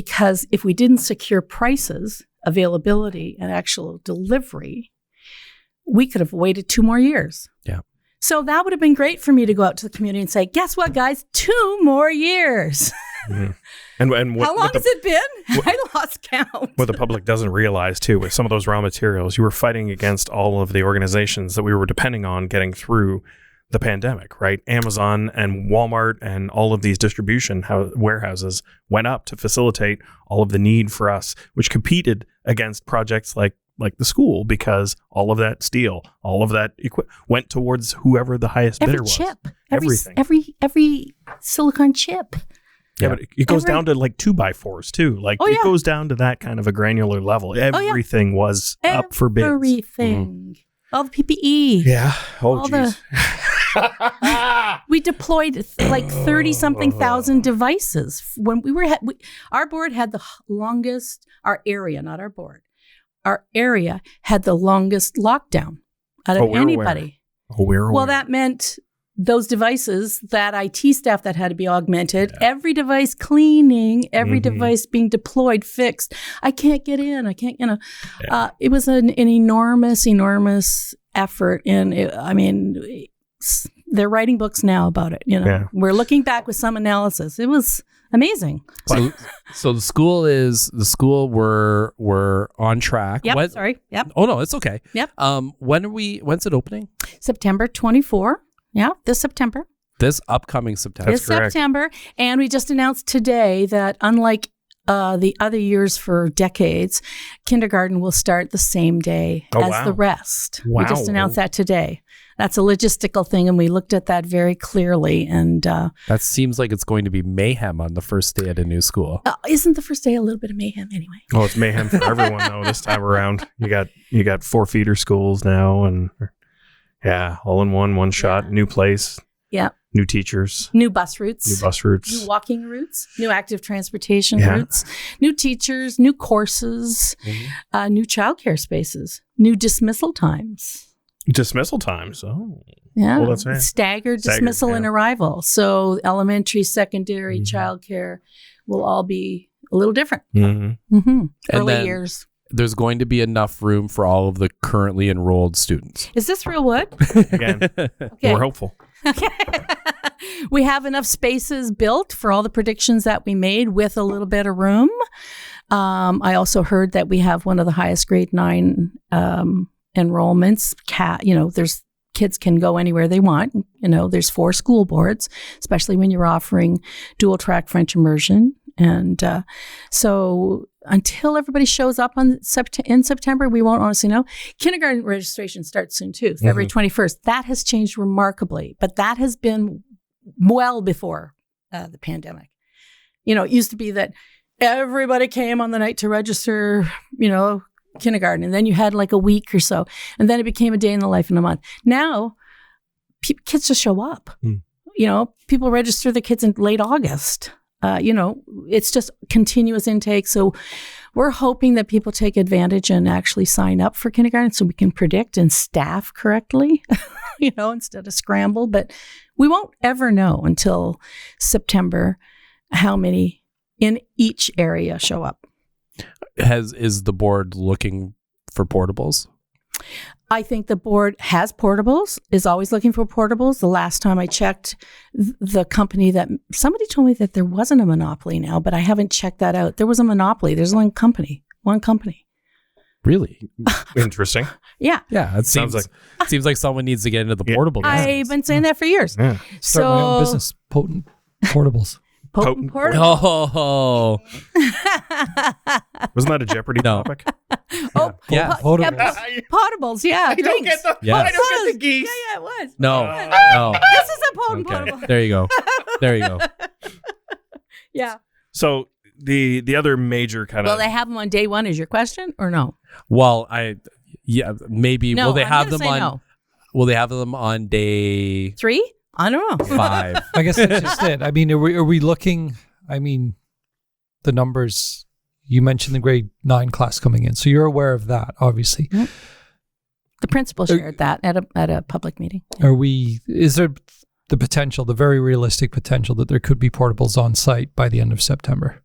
because if we didn't secure prices, availability, and actual delivery, we could have waited two more years. Yeah. So that would have been great for me to go out to the community and say, guess what, guys? Two more years. And and what, How long what, the, has it been? I lost count. what the public doesn't realize too, with some of those raw materials, you were fighting against all of the organizations that we were depending on getting through the pandemic, right? Amazon and Walmart and all of these distribution ho- warehouses went up to facilitate all of the need for us, which competed against projects like like the school because all of that steel, all of that equi- went towards whoever the highest every bidder was. chip, every, Everything. every every silicon chip. Yeah, Yeah. but it- it goes Every- down to like two by fours too. Like Oh, it yeah. Oh, goes down to that kind of a granular level. yeah. Everything was up for bids. Mm-hmm. Everything. All the E. PPE. yeah. Oh All the- jeez. We deployed th- like 30 something thousand devices. F- When we were, ha- we, our board had the h- longest, our area, not our board, our area had the longest lockdown out of Oh, we're aware. anybody. Oh, we're aware. Well, that meant those devices, that IT staff that had to be augmented, every device cleaning, every Mhm. device being deployed, fixed. I can't get in. I can't, you know. Uh, it was an, an enormous, enormous effort. And it, I mean, it's- they're writing books now about it. You know, Yeah. we're looking back with some analysis. It was amazing. So, so the school is the school we're we're on track. Yep. When- sorry. Yep. Oh no, it's okay. Yep. Um, when are we? When's it opening? September 24. Yeah. This September. This upcoming September. this correct. September. And we just announced today that unlike uh, the other years for decades, kindergarten will start the same day Oh, as wow. the rest. We just Wow. announced that today. That's a logistical thing, and we looked at that very clearly. And uh, That seems like it's going to be mayhem on the first day at a new school. uh, isn't the first day a little bit of mayhem anyway? oh, it's mayhem for everyone though this time around. You got you got four feeder schools now and yeah, all in one, one shot, new place. Yeah. New teachers, New bus routes, new bus routes. new walking routes, new active transportation Yeah. Mm-hmm. routes, new teachers, new courses, uh, new childcare spaces, new dismissal times. Dismissal times. Oh. Yeah. Well, that's right. Staggered Staggered, dismissal and yeah. arrival. So elementary, secondary, Mhm. childcare will all be a little different. Mhm. hmm And Early then- years. There's going to be enough room for all of the currently enrolled students. Is this real wood? Again, Okay. more hopeful. Okay. we have enough spaces built for all the predictions that we made with a little bit of room. Um, I also heard that we have one of the highest grade nine um, enrollments. Cat, you know, there's kids can go anywhere they want. You know, there's four school boards, especially when you're offering dual track French immersion. And uh, so until everybody shows up on sept- in September, we won't honestly know. Kindergarten registration starts soon too, February 21st. That has changed remarkably, but that has been well before uh, the pandemic. You know, it used to be that everybody came on the night to register, you know, kindergarten, and then you had like a week or so, and then it became a day in the life and a month. Now, pe- kids just show up. Mm. You know, people register their kids in late August. Uh, you know, it's just continuous intake. So we're hoping that people take advantage and actually sign up for kindergarten so we can predict and staff correctly, you know, instead of scramble. But we won't ever know until September how many in each area show up. Has is the board looking for portables? I think the board has portables, is always looking for portables. The last time I checked, th- the company that somebody told me that there wasn't a monopoly now, but I haven't checked that out. There was a monopoly. There's one company, one company. Really? Interesting. Yeah. Yeah, it Sounds seems like seems like someone needs to get into the Yeah. portable. I've business. been saying that for years. Yeah. Start so, my own business, potent portables. Potent Potent portable. Oh, Wasn't that a Jeopardy No. topic? Oh, Yeah, po- yeah, potables. po- potables. Yeah. I the Yeah. I don't get the geese. Yeah, yeah, it was. no, no. This is a potent Okay, portable. there you go. There you go. Yeah. So the the other major kind Will of they have them on day one? Is your question or no? Well, I yeah maybe No, will they I'm have gonna them say on? no. Will they have them on day Three? I don't know. five? I guess that's just it. I mean, are we, are we looking? I mean, the numbers. You mentioned the grade nine class coming in, so you're aware of that, obviously. The principal shared that at a at a public meeting. Are we? Is there the potential, the very realistic potential, that there could be portables on site by the end of September?